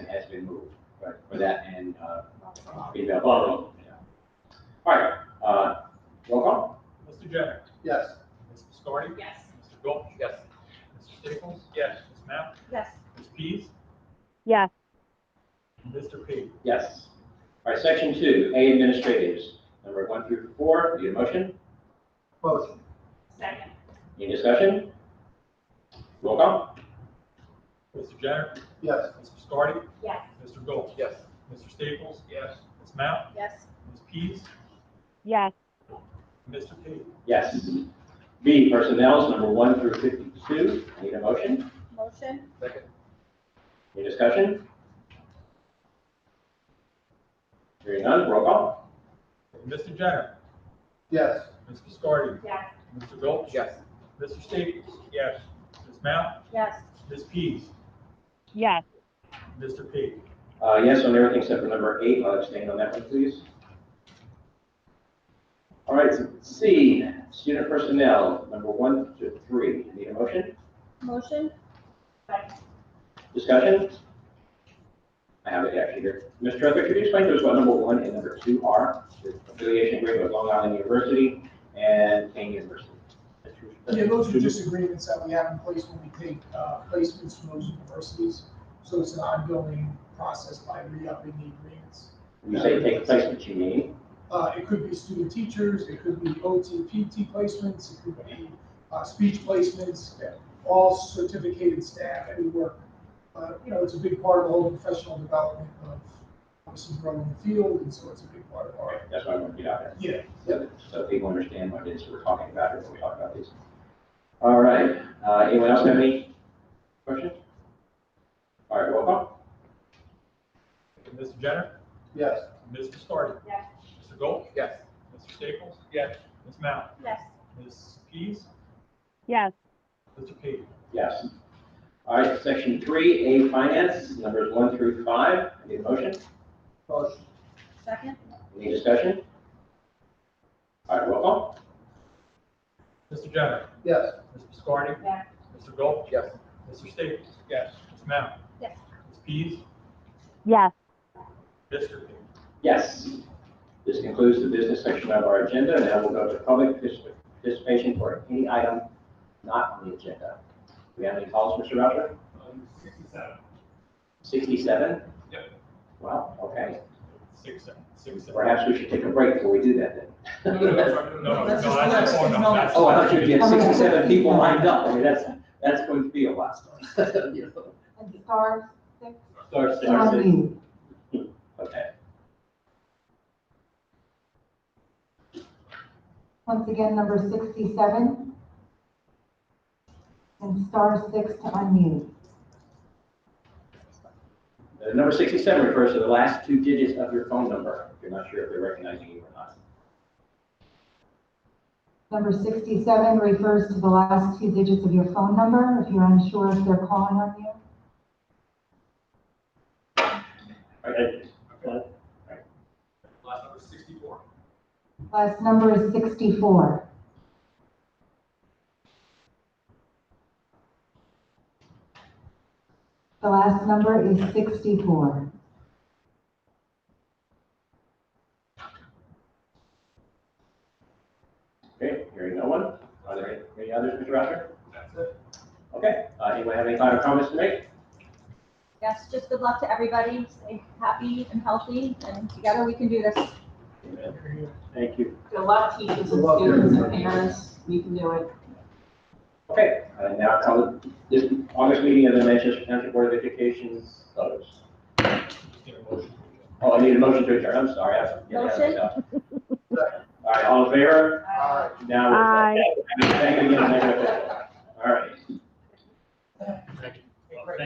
has been moved, right, for that and, uh, female. Bottom. Yeah. All right, uh, roll call? Mr. Jennings. Yes. Ms. Biscardi. Yes. Mr. Gold. Yes. Mr. Staples. Yes. Ms. Knapp. Yes. Ms. Pease. yes, and Mr. P. Yes. All right, section two, A administratives, number one through four, need a motion, Motion. Second. any discussion? Roll call? Mr. Jennings. Yes. Ms. Biscardi. Yes. Mr. Gold. Yes. Mr. Staples. Yes. Ms. Knapp. Yes. Ms. Pease. yes, and Mr. P. Yes. B, personnel's number one through fifty-two, need a motion, Motion? Second. any discussion? Hearing none, roll call? Mr. Jennings. Yes. Ms. Biscardi. Yes. Mr. Gold. Yes. Mr. Staples. Yes. Ms. Knapp. Yes. Ms. Pease. yes, and Mr. P. Uh, yes on everything except for number eight, I'll abstain on that one, please. All right, C, student personnel, number one to three, need a motion? Motion? Second. Discussion? I have it actually here. Mr. Tretherick, could you explain to us what number one and number two are? The Affiliation agreement with Long Island University and Kane University. Yeah, those are just agreements that we have in place when we take uh, placements from those universities. So it's an ongoing process by re-upping the agreements. When you say take placement, you mean? Uh, It could be student teachers, it could be OT, PT placements, it could be uh, speech placements, all certificated staff, any work. Uh, You know, it's a big part of the whole professional development of obviously growing the field, and so it's a big part of Okay, our, That's why I want to get out there. yeah, So that, so people understand what it is we're talking about here when we talk about these. All right, uh, anyone else have any questions? All right, roll call? and Mr. Jennings. Yes. Ms. Biscardi. Yes. Mr. Gold. Yes. Mr. Staples. Yes. Ms. Knapp. Yes. Ms. Pease. yes, Mr. P. Yes. All right, section three, A finance, numbers one through five. I Need a motion? Motion. Second? Any discussion? All right, roll call? Mr. Jennings. Yes. Ms. Biscardi. Yes. Mr. Gold. Yes. Mr. Staples. Yes. Ms. Mount. Yes. Ms. Pease. yes. Mr. P. Yes. This concludes the business section of our agenda. Now we'll go to public particip- participation for any item not on the agenda. Do we have any calls, Mr. Boucher? Um, sixty-seven. Sixty-seven? Yep. Wow, okay. Six, seven, six, seven. Perhaps we should take a break before we do that No, no, then. no, no, no, That's just- I just that's just want to- no. that's- Oh, I thought you had sixty-seven people lined up. I mean, that's, that's going to be a lot. You know. And stars? Six. Start, start, Not sit. me. Okay. Once again, number sixty-seven. And star six to unmute. Uh, Number 67 refers to the last two digits of your phone number. If you're not sure if they're recognizing you or not. Number sixty-seven refers to the last two digits of your phone number, if you're unsure if they're calling on you. Okay. Last number sixty-four. Last number is sixty-four. The last number is sixty-four. Okay, hearing no one. Are there any- any others, Mr. Roger? Okay, uh, anyone have any final comments to make? Yes, just good luck to everybody. Stay happy and healthy, and together we can do this. Thank you. A lot of teachers Good and luck, students and everybody. parents, we can do it. Okay, uh, now come, this August meeting of the Manchester County Board of Education closed. Oh, I need a motion to adjourn. I'm sorry. I- yeah, yeah, Motion? yeah. All right, all in favor? Aye. Now, we're- Aye. thank you again. Thank you.